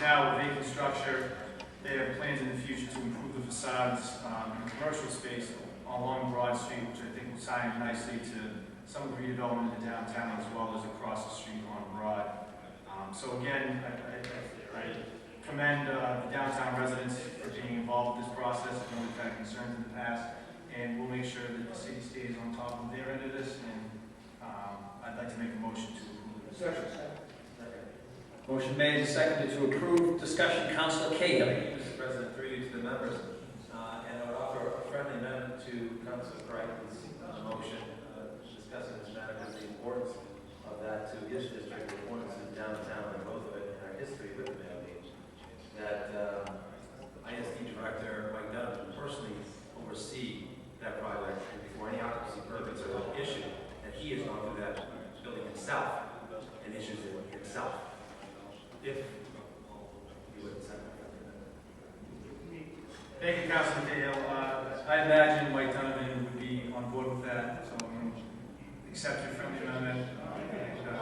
now a vacant structure. They have plans in the future to improve the facades um, in commercial space along Broad Street, which I think will tie in nicely to some of the redevelopment in downtown as well as across the street on Broad. Um, So again, I- I- I I commend uh, the downtown residents for being involved in this process. I know we've had concerns in the past, and we'll make sure that the city stays on top of their end of this, and um, I'd like to make a motion to approve this. Motion made and seconded to approve. Discussion, Counselor Cahill. Mr. President, through you to the members, uh, and I would offer a friendly amendment to Council Crichton's uh, motion uh, discussing this matter with the importance of that to his district, the importance of downtown and both of it and our history with the Miami. That uh, ISD Director Mike Dunn personally oversee that project before any occupancy permits are issued, and he has gone through that building himself and issues it himself. If you would accept that. Thank you, Councilman Cahill. Uh, I imagine Mike Donovan would be on board with that, so I'm going to accept your friendly amendment. And, uh,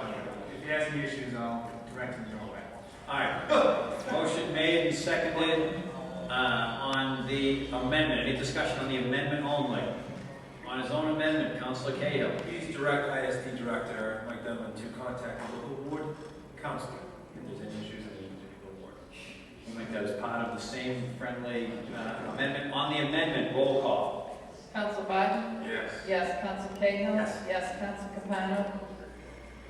If he has any issues, I'll direct him your way. All right. Motion made and seconded uh, on the amendment. Any discussion on the amendment only? On his own amendment, Counselor Cahill. Please direct ISD Director Mike Dunn to contact the local board counselor if there's any issues in the individual board. We'll make that as part of the same friendly uh, amendment. On the amendment, roll call. Council Biden? Yes. Yes. Council Cahill? Yes. Yes, Council Capano?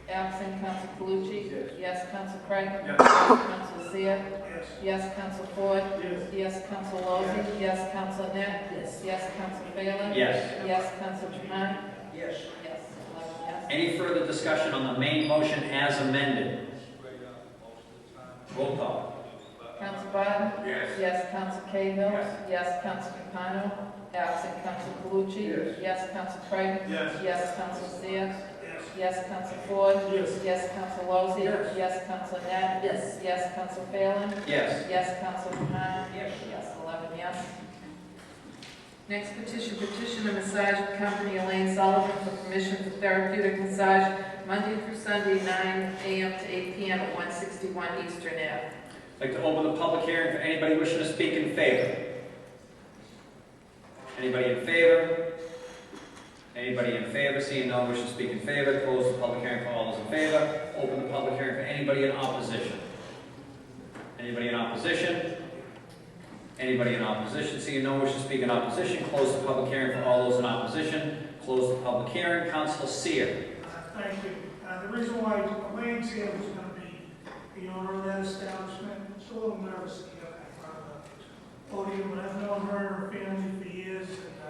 Absent Council Calucci? Yes. Council Creighton? Yes. Council Seer? Yes. Yes, Council Ford? Yes. Yes, Council Lozey? Yes, Council Net? Yes. Yes, Council Phelan? Yes. Yes, Council Trahan? Yes. Yes, eleven yes. Any further discussion on the main motion as amended? Roll call. Council Biden? Yes. Yes, Council Cahill? Yes. Yes, Council Capano? Absent Council Calucci? Yes. Yes, Council Creighton? Yes. Yes, Council Seer? Yes. Yes, Counsel Ford. Yes. Yes, Counsel Lozey. Yes. Yes, Counsel Net. Yes. Yes, Counsel Phelan. Yes. Yes, Counsel Trahan. Yes. Yes, eleven yes. Next petition, petition of massage company Elaine Sullivan for permission for therapeutic massage Monday through Sunday, nine AM to eight PM at one sixty-one Eastern Ave. I'd like to open the public hearing for anybody wishing to speak in favor. Anybody in favor? Anybody in favor? Seeing no one wishing to speak in favor, close the public hearing for all those in favor. Open the public hearing for anybody in opposition. Anybody in opposition? Anybody in opposition? Seeing no one wishing to speak in opposition, close the public hearing for all those in opposition. Close the public hearing. Council Seer. Thank you. Uh, The reason why Elaine's here was going to be the owner of that establishment. She's a little nervous to get back on the podium, but I've known her and her family for years, and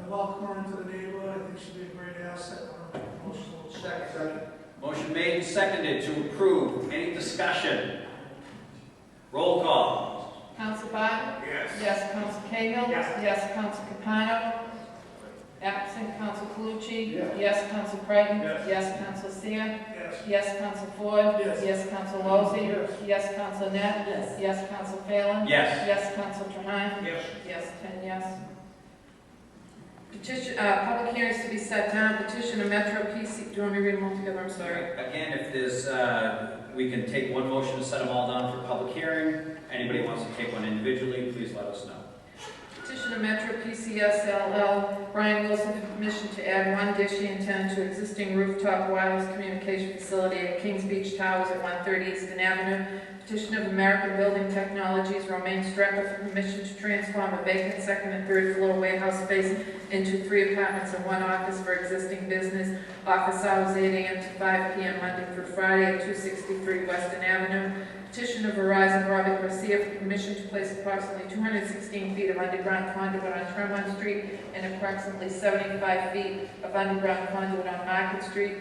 uh, I welcome her into the neighborhood. I think she'd be a great asset on our emotional. Second. Motion made and seconded to approve. Any discussion? Roll call. Counsel Barton. Yes. Yes, Counsel Cahill. Yes. Yes, Counsel Capano. Absent Counsel Calucci. Yes, Counsel Creighton. Yes. Yes, Counsel Seer. Yes. Yes, Counsel Ford. Yes. Yes, Counsel Lozey. Yes. Yes, Counsel Net. Yes. Yes, Counsel Phelan. Yes. Yes, Counsel Trahan. Yes. Yes, ten yes. Petition, uh, public hearings to be set down, petition of Metro PC, do you want me to read them all together, I'm sorry? Again, if there's, uh, we can take one motion and set them all down for public hearing. Anybody wants to take one individually, please let us know. Petition of Metro PCS LL, Brian Wilson for permission to add one dish antenna to existing rooftop wireless communication facility at Kings Beach Towers at 130 Eastern Avenue. Petition of American Building Technologies, Romaine Strecker for permission to transform a vacant second and third floor warehouse space into three apartments and one office for existing business. Office hours 8 AM to 5 PM Monday through Friday at 263 Western Avenue. Petition of Verizon Robert Garcia for permission to place approximately 216 feet of underground conduit on Tremont Street and approximately 75 feet of underground conduit on Market Street.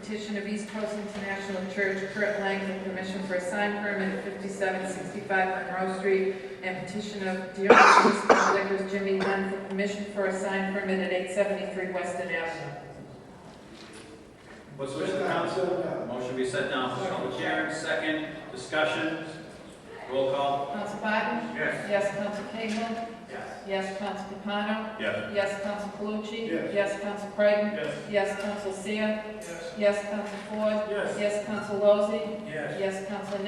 Petition of East Coast International Church Kurt Lang for permission for a sign permit at 5765 Monroe Street. And petition of Dionysus Liquors Jimmy Dunn for permission for a sign permit at 873 Weston Avenue. What's the wish of the council? Motion be set down for public hearing, second, discussion, roll call. Counsel Barton? Yes. Yes, Counsel Cahill? Yes. Yes, Counsel Capano? Yes. Yes, Counsel Calucci. Yes. Yes, Counsel Creighton. Yes. Yes, Counsel Seer. Yes. Yes, Counsel Ford. Yes. Yes, Counsel Lozey. Yes. Yes, Counsel